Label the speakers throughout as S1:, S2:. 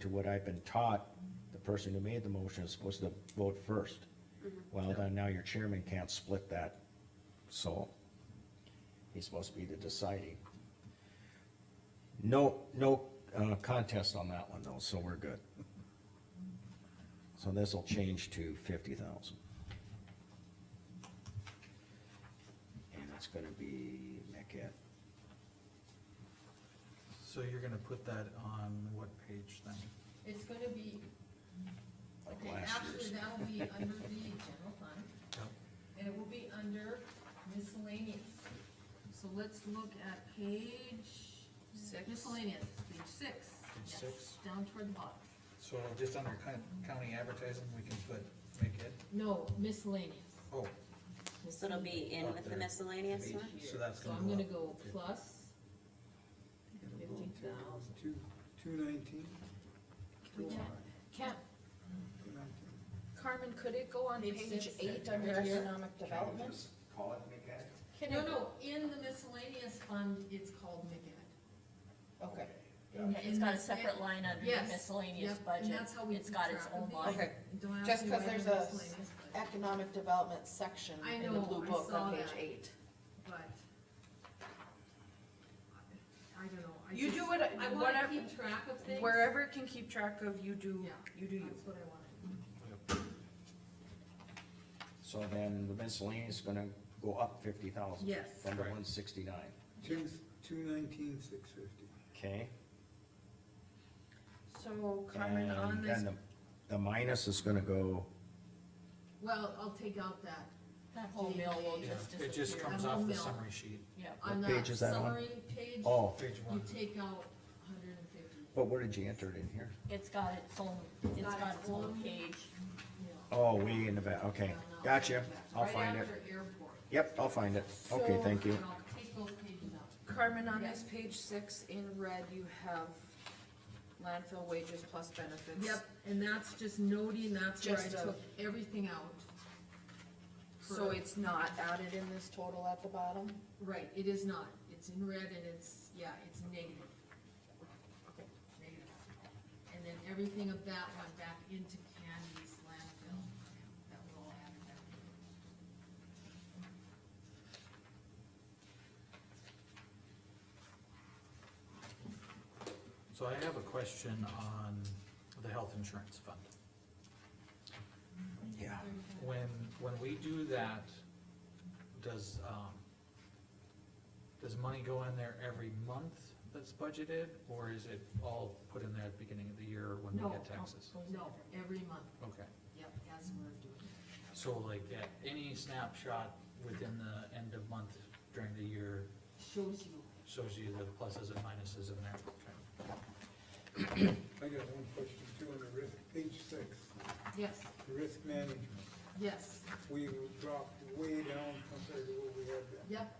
S1: to what I've been taught, the person who made the motion is supposed to vote first.
S2: Mm-hmm.
S1: Well, then now your chairman can't split that, so he's supposed to be the deciding. No, no, uh, contest on that one though, so we're good. So this'll change to fifty thousand. And it's gonna be MCAT
S3: So you're gonna put that on what page then?
S2: It's gonna be,
S1: like
S2: okay,
S1: last
S2: actually,
S1: year's.
S2: that will be under the general fund, and it will be under miscellaneous. So let's look at page.
S4: Six.
S2: Miscellaneous, page six.
S3: Page
S2: Yes,
S3: six.
S2: Down toward the bottom.
S3: So just under coun- county advertising, we can put, make it,
S2: No, miscellaneous.
S3: oh,
S4: This
S5: So it'll be in with the miscellaneous one?
S3: so that's
S2: So
S3: gonna
S2: I'm gonna
S3: go
S2: go
S3: up.
S2: plus fifty thousand.
S6: Two, two nineteen,
S2: We can't, can't,
S6: two nineteen.
S7: Carmen, could it go on
S2: Page
S7: page
S2: six,
S7: eight
S2: right
S7: under
S2: here.
S7: economic development?
S1: Call it MCAT?
S7: Can
S2: no,
S7: it-
S2: no, in the miscellaneous fund, it's called McGinn.
S7: Okay,
S2: In-
S4: It's got a separate line under
S2: Yes.
S4: miscellaneous
S2: Yep, and
S4: budget,
S2: that's how we
S4: it's got its
S2: keep
S4: own
S2: track of
S4: line.
S7: okay.
S2: Don't ask
S7: Just
S2: me
S7: 'cause
S2: why
S7: there's
S2: the
S7: a
S2: miscellaneous, but-
S7: Economic development section
S2: I
S7: in the
S2: know,
S7: blue
S2: I
S7: book
S2: saw
S7: on page
S2: that.
S7: eight.
S2: but. I don't know. I
S7: You
S2: just-
S7: do what,
S2: I wanna
S7: whatever,
S2: keep track of things.
S7: wherever it can keep track of, you do,
S2: Yeah.
S7: you do you.
S2: That's what I wanted.
S1: So then the miscellaneous is gonna go up fifty thousand.
S2: Yes.
S1: From the
S3: Right.
S1: one sixty-nine,
S6: Two, two nineteen, six fifty.
S1: okay?
S7: So Carmen, on
S1: And
S7: this,
S1: then the, the minus is gonna go,
S2: Well, I'll take out that.
S4: That whole mill will
S3: Yeah,
S4: just
S3: it just
S4: disappear.
S3: comes
S2: I'm
S3: off
S2: on
S3: the
S2: mill.
S3: summary sheet,
S4: Yep.
S2: On
S1: What
S2: that
S1: page is that on?
S2: summary page,
S1: oh,
S3: page one.
S2: you take out hundred and fifty,
S1: but where did you enter it in here?
S4: It's got its own, it's got its own page.
S2: yeah.
S1: Oh, way in the back, okay,
S2: Down now.
S1: gotcha, I'll
S2: Right
S1: find it.
S2: after airport.
S1: Yep, I'll find it, okay,
S7: So-
S1: thank you.
S2: And I'll take those pages out.
S7: Carmen, on
S2: Yeah.
S7: this page six in red, you have landfill wages plus benefits.
S2: Yep, and that's just noting, that's where I
S7: Just a-
S2: took everything out.
S7: So
S2: For-
S7: it's not added in this total at the bottom?
S2: Right, it is not, it's in red and it's, yeah, it's negative. Negative. And then everything of that went back into Candy's landfill, that were all added back.
S3: So I have a question on the health insurance fund.
S1: Yeah.
S3: When, when we do that, does, um, does money go in there every month that's budgeted, or is it all put in there at the beginning of the year when we
S2: No,
S3: get taxes?
S2: No, every month,
S3: Okay,
S2: yep, as we're doing it.
S3: so like at any snapshot within the end of month during the year
S2: Shows you,
S3: shows you the pluses and minuses in there. Okay.
S6: I got one question too on the risk, page six,
S2: yes,
S6: the risk management.
S2: yes,
S6: We dropped way down compared to what we had then.
S2: yep,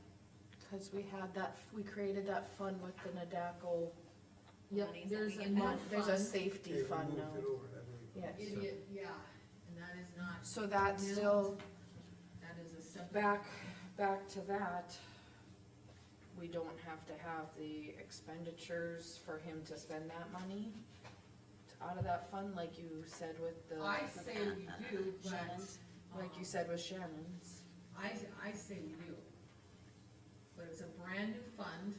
S7: Cause we had that, we created that fund with the Nadaco,
S2: yep,
S5: Monies that
S2: there's
S5: we
S2: a
S5: get
S2: new
S5: back.
S7: there's a
S2: fund.
S6: Okay,
S7: safety
S6: we
S7: fund
S6: moved it
S7: now.
S6: over that way.
S7: Yes,
S2: Idiot, yeah, and that is not,
S7: so that's still,
S2: that is a separate.
S7: back, back to that, we don't have to have the expenditures for him to spend that money out of that fund, like you said with the,
S2: I say we do, but.
S5: Shannon's.
S7: like you said with Shannon's.
S2: I, I say we do. But it's a brand new fund,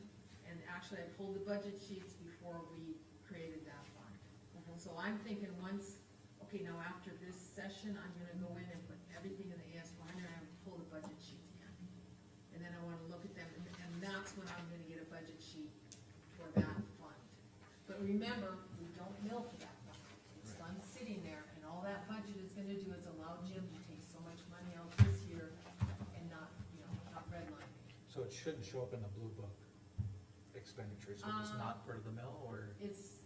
S2: and actually I pulled the budget sheets before we created that fund. So I'm thinking once, okay, now after this session, I'm gonna go in and put everything in the AS one hundred, and pull the budget sheets again. And then I wanna look at them, and and that's when I'm gonna get a budget sheet for that fund. But remember, we don't mill for that fund. It's fund sitting there, and all that budget is gonna do is allow Jim to take so much money out this year and not, you know, not redlining.
S3: So it shouldn't show up in the blue book expenditures, which is
S2: Um,
S3: not part of the mill, or?
S2: It's,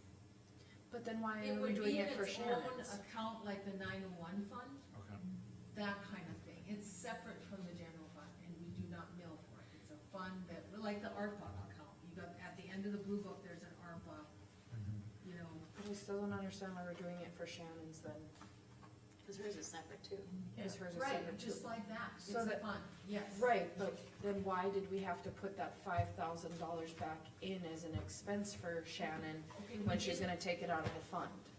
S7: But then why
S2: it
S7: are we
S2: would
S7: doing
S2: be in
S7: it for
S2: its own
S7: Shannon's?
S2: account like the nine oh one fund,
S3: Okay.
S2: that kind of thing. It's separate from the general fund and we do not mill for it. It's a fund that, like the ARPA account, you got, at the end of the blue book, there's an ARPA, you know,
S3: Mm-hmm.
S7: I still don't understand why we're doing it for Shannon's then.
S5: Cause hers is separate too.
S7: Is hers a
S2: Right,
S7: separate
S2: just
S7: too?
S2: like that, it's
S7: So
S2: a
S7: that-
S2: fund, yes.
S7: Right, but then why did we have to put that five thousand dollars back in as an expense for Shannon
S2: Okay, we
S7: when she's
S2: did-
S7: gonna take it out of the fund?